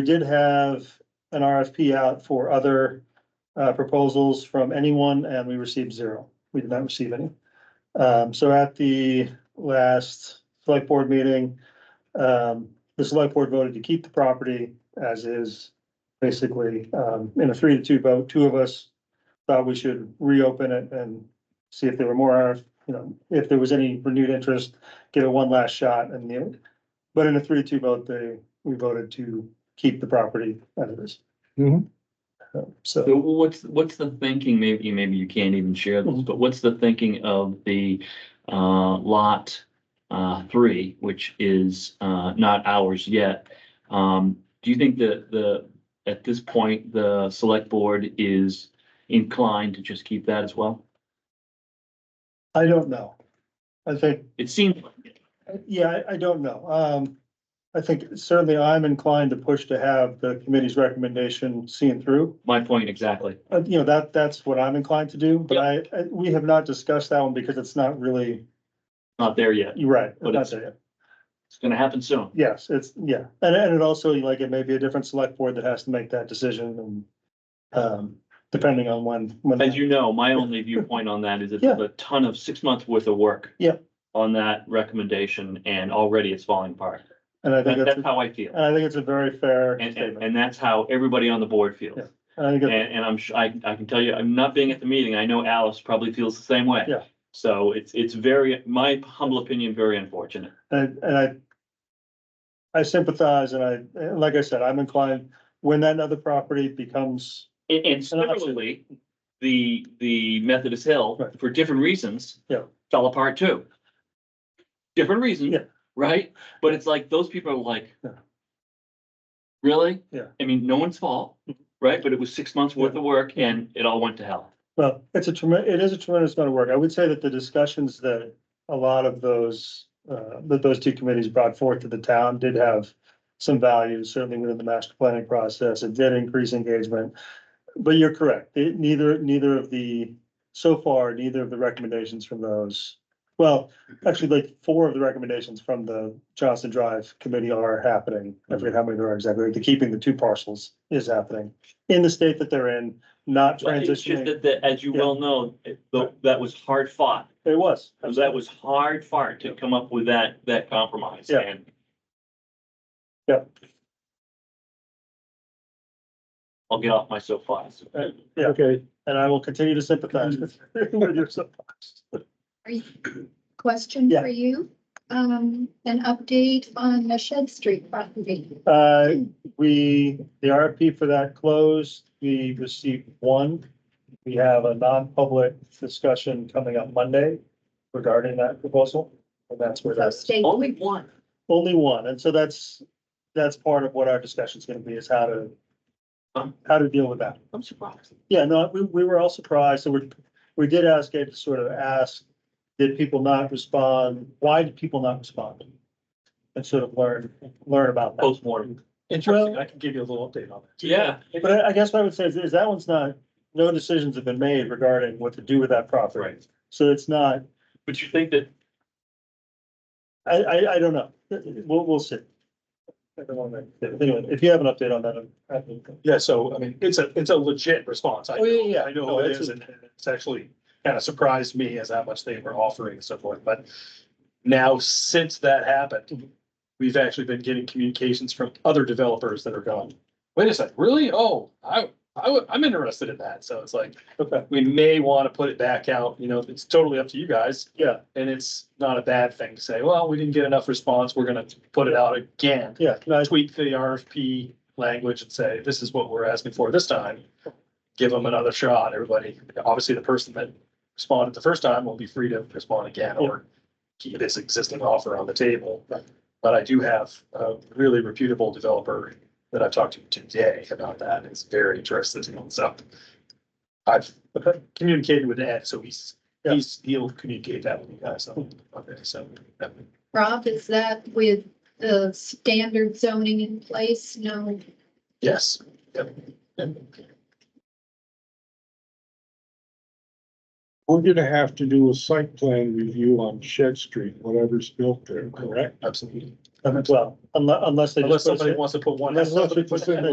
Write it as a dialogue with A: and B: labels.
A: We did have an RFP out for other uh, proposals from anyone and we received zero. We did not receive any. Um, so at the last select board meeting, um, the select board voted to keep the property as is. Basically, um, in a three to two vote, two of us thought we should reopen it and see if there were more, you know, if there was any renewed interest, give it one last shot and the, but in a three to two vote, they, we voted to keep the property as it is.
B: Mhm.
A: Uh, So.
C: So what's, what's the thinking, maybe, maybe you can't even share
A: Mm-hmm.
C: this, but what's the thinking of the uh, lot uh, three, which is uh, not ours yet? Um, Do you think that the, at this point, the select board is inclined to just keep that as well?
A: I don't know. I think,
C: It seems, like it.
A: yeah, I, I don't know. Um, I think certainly I'm inclined to push to have the committee's recommendation seen through.
C: my point exactly.
A: Uh, you know, that, that's what I'm inclined to do, but I, I- we have not discussed that one because it's not really,
C: Not there yet.
A: you're right. it's
C: But
A: not
C: it's-
A: there yet.
C: It's gonna happen soon.
A: Yes, it's, yeah. And, and it also, like, it may be a different select board that has to make that decision and, um, depending on when, when.
C: As you know, my only viewpoint on that is it's
A: Yeah.
C: a ton of six months worth of work.
A: Yeah.
C: On that recommendation and already it's falling apart.
A: And I think
C: That-
A: that's,
C: That's
A: and
C: how I feel.
A: I think it's a very fair
C: And, and,
A: statement.
C: and that's how everybody on the board feels.
A: Yeah. And I think
C: And,
A: it-
C: and I'm, su- I, I can tell you, I'm not being at the meeting. I know Alice probably feels the same way.
A: Yeah.
C: So it's, it's very, my humble opinion, very unfortunate.
A: And, and I. I sympathize and I, and like I said, I'm inclined, when that other property becomes,
C: And, and
A: And I'm upset.
C: similarly, the, the Methodist Hill,
A: Right.
C: for different reasons.
A: Yeah.
C: Fell apart too. Different reasons,
A: Yeah.
C: right? But it's like, those people are like.
A: Yeah.
C: Really?
A: Yeah. Mm-hmm.
C: I mean, no one's fault, right? But it was six months worth of work and it all went to hell.
A: well, it's a tremendous, it is a tremendous amount of work. I would say that the discussions that a lot of those. Uh, that those two committees brought forth to the town did have some value, certainly within the master planning process. It did increase engagement. But you're correct, It- neither, neither of the, so far, neither of the recommendations from those. Well, actually, like, four of the recommendations from the Johnson Drive Committee are happening. I forget how many there are exactly, the keeping the two parcels is happening in the state that they're in, not
C: But It's just
A: transitioning.
C: that, that, as you
A: Yeah.
C: well know, it- tho- that was hard fought.
A: It was.
C: So That was hard fought to come up with that, that compromise.
A: Yeah.
C: And
A: Yeah.
C: I'll get off my soapbox.
A: Uh, Yeah.
B: Okay,
A: And I will continue to sympathize with with your soapbox.
D: Are you- Question
A: Yeah.
D: for you, um, an update on the Shed Street property.
A: Uh, we, the RFP for that closed, we received one. We have a non-public discussion coming up Monday regarding that proposal. And that's where
D: So
A: that's,
D: stay,
C: Only one.
A: only one, and so that's, that's part of what our discussion's gonna be, is how to,
C: Um.
A: how to deal with that.
C: I'm surprised.
A: Yeah, no, we, we were all surprised, so we, we did ask Ed to sort of ask, did people not respond? Why did people not respond? And sort of learn, learn about that.
C: Postmortem.
B: interesting. I can give you a little update on that.
C: Yeah.
A: But I- I guess what I would say is, is that one's not, no decisions have been made regarding what to do with that property.
C: Right.
A: So it's not,
C: But you think that,
A: I, I, I don't know. We'll, we'll see. I don't wanna make- Anyway, if you have an update on that, I'm- I'm.
B: Yeah, so I mean, it's a, it's a legit response. I
A: Oh, yeah, yeah.
B: know- I know
A: No,
B: it
A: it's
B: is,
A: a-
B: and it's actually kind of surprised me as how much they were offering and so forth, but now since that happened, we've actually been getting communications from other developers that are going, wait a sec, really? Oh, I, I, would- I'm interested in that. So it's like,
A: Okay.
B: we may want to put it back out, you know, it's totally up to you guys.
A: Yeah,
B: And it's not a bad thing to say, well, we didn't get enough response, we're gonna put it out again.
A: yeah, no, I-
B: Tweak the RFP language and say, this is what we're asking for this time. Give them another shot, everybody. Obviously, the person that responded the first time will be free to respond again or keep this existing offer on the table. But I do have a really reputable developer that I've talked to today about that. It's very interested in it, so. I've communicated with Ed, so he's,
A: Yeah.
B: he's, he'll communicate that with you guys. So, okay, so. that-
D: Rob, is that with the standard zoning in place? No,
B: Yes. Yep. Yep.
E: We're gonna have to do a site plan review on Shed Street, whatever's built there, correct?
B: Absolutely.
A: Well, unless, unless they. just
B: Unless
A: put us
B: somebody
A: in-
B: wants to put one.
A: Unless somebody
B: somebody
A: puts
B: puts
A: in